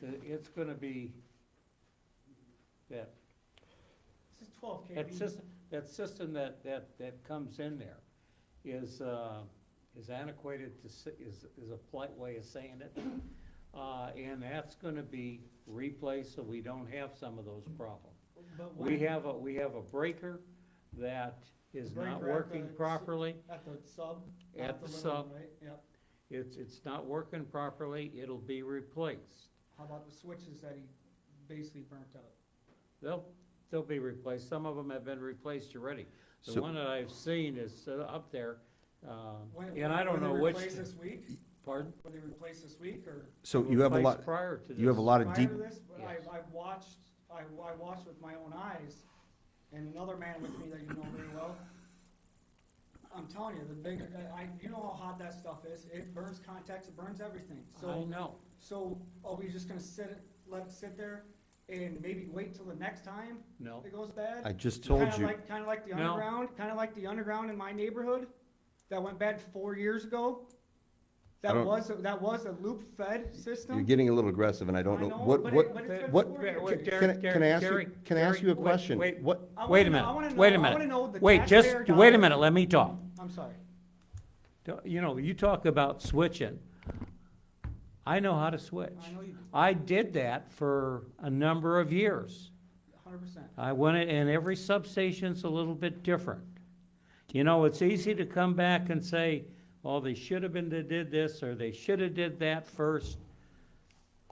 the- it's gonna be that, This is twelve that KV. system, that system that, that, that comes in there is, uh, is antiquated to, s- is, is a polite way of saying it. Uh, and that's gonna be replaced so we don't have some of those problems. But We when- have a, we have a breaker that is not Breaker at working the s- properly. At the sub. not At the living sub. room, Right, yep. It's, it's not working properly, it'll be replaced. How about the switches that he basically burnt out? They'll, they'll be replaced, some of them have been replaced already. The So- one that I've seen is uh, up there, um, When- and I don't when they know which, Replace this week? pardon? Will they replace this week or? So you have a Replaced lot, Prior to this. you have a lot of Prior deep, to this, but I, Yes. I watched, I, I watched with my own eyes, and another man with me that you know very well. I'm telling you, the big, I, I- you know how hot that stuff is, it burns contacts, it burns everything, I so, know, so are we just gonna sit, it- let it sit there and maybe wait till the next time no, it goes bad? I just told Kinda you, like, kinda like the No. underground, kinda like the underground in my neighborhood, that went bad four years ago. That don't- was, that was a loop fed system. you're getting a little aggressive and I don't I know, know, what, but it- what, but it's been what- four Wait, years. wait, can Jerry, I- can I ask Jerry, you, can I ask Jerry, you a wait, question? wait. What, I wanna Wait a know- minute, I wanna know- wait a I minute. wanna know the Wait, just, taxpayer wait a dollars- minute, let me talk. I'm sorry. Don't- You know, you talk about switching. I know how to switch. I know you do. I did that for a number of years. Hundred percent. I went, in- and every substation's a little bit different. You know, it's easy to come back and say, oh, they should have been, they did this, or they should have did that first.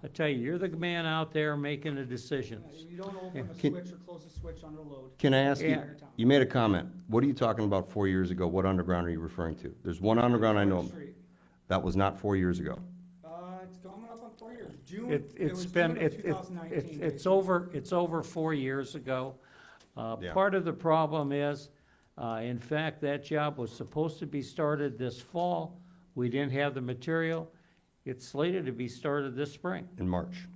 I tell you, you're the man out there making the decisions. You don't open a Can- switch or close a switch under load. can I ask you, Yeah. entire time. you made a comment. What are you talking about four years ago? What underground are you referring to? There's one underground I know, of. Street. that was not four years ago. Uh, it's coming up on four years, June. It, it it's was been, June of it, it, 2019, it's, it's basically. over, it's over four years ago. Uh, Yeah. part of the problem is, uh, in fact, that job was supposed to be started this fall. We didn't have the material. It's slated to be started this spring. in March.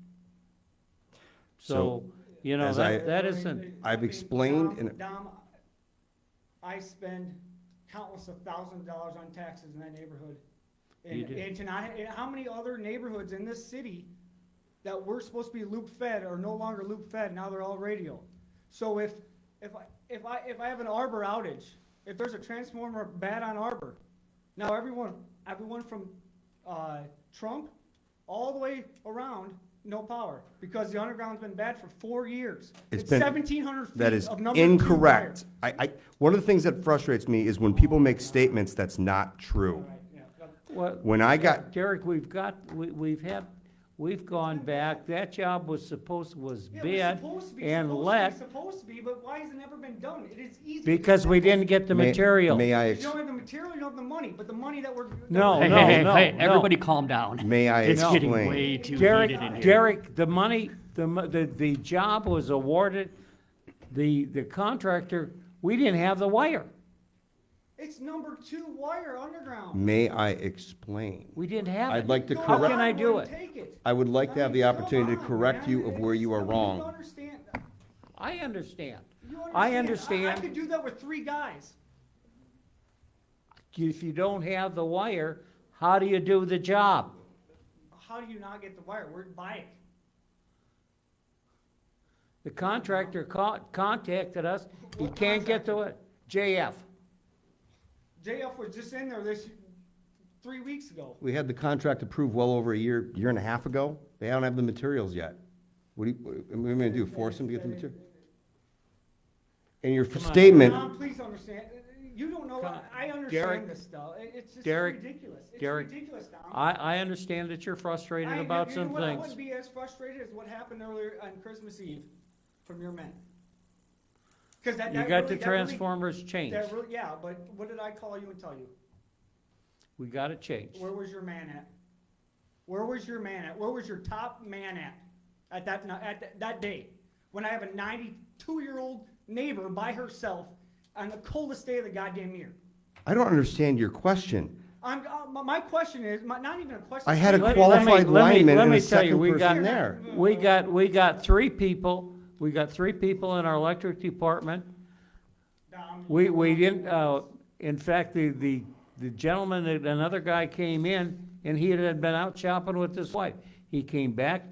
So, you know, as I- that, that I mean, isn't, it- I've I mean, explained Dom- and- Dom, I spend countless of thousands of dollars on taxes in that neighborhood. You And, do. and tonight, and how many other neighborhoods in this city that were supposed to be loop fed are no longer loop fed, now they're all radio? So if, if I, if I, if I have an Arbor outage, if there's a transformer bad on Arbor, now everyone, everyone from, uh, Trump all the way around, no power, because the underground's been bad for four years. It's It's been- seventeen hundred feet That is of number two incorrect. I, I, one of the things that frustrates me is when people make statements that's not wire. true. All right, yeah, that- what, When I got, Derek, we've got, we, we've had, we've gone back, that job was supposed, was yeah, it was bid supposed to be, supposed and to be, let, Supposed to be, but why has it never been done? It is easy. to because we do. didn't get the May- material. May I, You ex- don't have the material, you don't have the money, but the money that we're. that No, we're- Hey, hey, hey, no, hey, no. everybody calm down. may I It's getting explain? way too heated in Derek, here. Derek, the money, the, mo- the, the job was awarded, the, the contractor, we didn't have the wire. It's number two wire underground. May I explain? We didn't have it. I'd like to No, How can correct, I do wouldn't it? take it. I would like to have the mean, opportunity to come on, correct man. you of where you are You wrong. understand, I understand. you I I understand. could do that with three guys. If you don't have the wire, how do you do the job? How do you not get the wire? We're buying. The contractor co- contacted us, he can't get to it, JF. JF was just in there this, three weeks ago. We had the contract approved well over a year, year and a half ago. They don't have the materials yet. What do you, what am I gonna do, force them to get the material? And your Come on. statement, Tom, please understand, you don't know, Come on. I Derek. understand this stuff, It- it's just Derek. ridiculous, it's Derek. ridiculous, Tom. I, I understand that you're frustrated about you know some what? I wouldn't things. be as frustrated as what happened earlier on Christmas Eve from your men. Cause that, You that got really, the that really, transformers changed, that really, yeah, but what did I call you and tell you? we got it changed. Where was your man at? Where was your man at? Where was your top man at? At that, ni- at that- that day? When I have a ninety-two-year-old neighbor by herself on the coldest day of the goddamn year? I don't understand your question. I'm, uh, my, my question is, my, not even a question. I had a Let me- qualified let me- lineman let and me a tell you, second we got- person there. We got, we got three people, we got three people in our electric department. Dom, We, you we know, didn't, uh, in fact, the, the, the gentleman, another guy came in and he had been out shopping with his wife. He came back